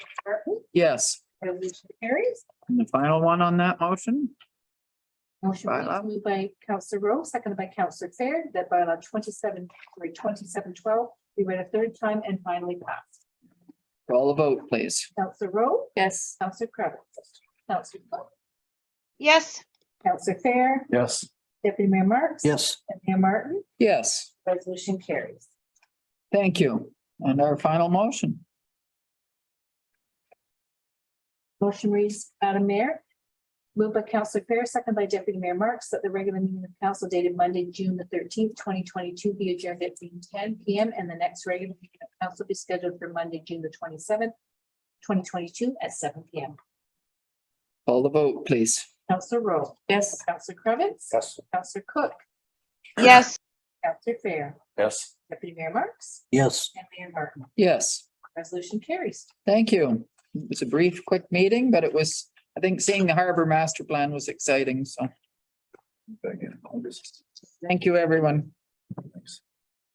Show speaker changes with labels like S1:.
S1: Yes.
S2: Resolution carries.
S1: And the final one on that motion?
S2: Motion
S1: Bylaw.
S2: was moved by Counselor Rowe, seconded by Counselor Fair, that bylaw twenty-seven, sorry, twenty-seven twelve, be read a third time and finally passed.
S1: Call a vote, please.
S2: Counselor Rowe? Yes. Counselor Kravitz? Counselor Cook?
S3: yes,
S2: Counselor Fair?
S4: Yes.
S2: Deputy Mayor Marks?
S4: Yes.
S2: And Mayor Martin?
S1: Yes,
S2: Resolution carries.
S1: thank you. And our final motion.
S2: Motion reads, Madam Mayor. Moved by Counselor Fair, second by Deputy Mayor Marks, that the regular meeting of council dated Monday, June the thirteenth, twenty twenty-two be adjourned at 10 P M. And the next regular meeting of council be scheduled for Monday, June the twenty-seventh, twenty twenty-two at seven P M.
S1: Call the vote, please.
S2: Counselor Rowe. Yes. Counselor Cravitz.
S4: Yes.
S2: Counselor Cook.
S3: yes.
S2: Counselor Fair.
S4: Yes.
S2: Deputy Mayor Marks.
S4: Yes.
S2: And Mayor Martin.
S1: Yes,
S2: Resolution carries.
S1: thank you. It was a brief, quick meeting, but it was, I think seeing the harbor master plan was exciting, so thank you, everyone.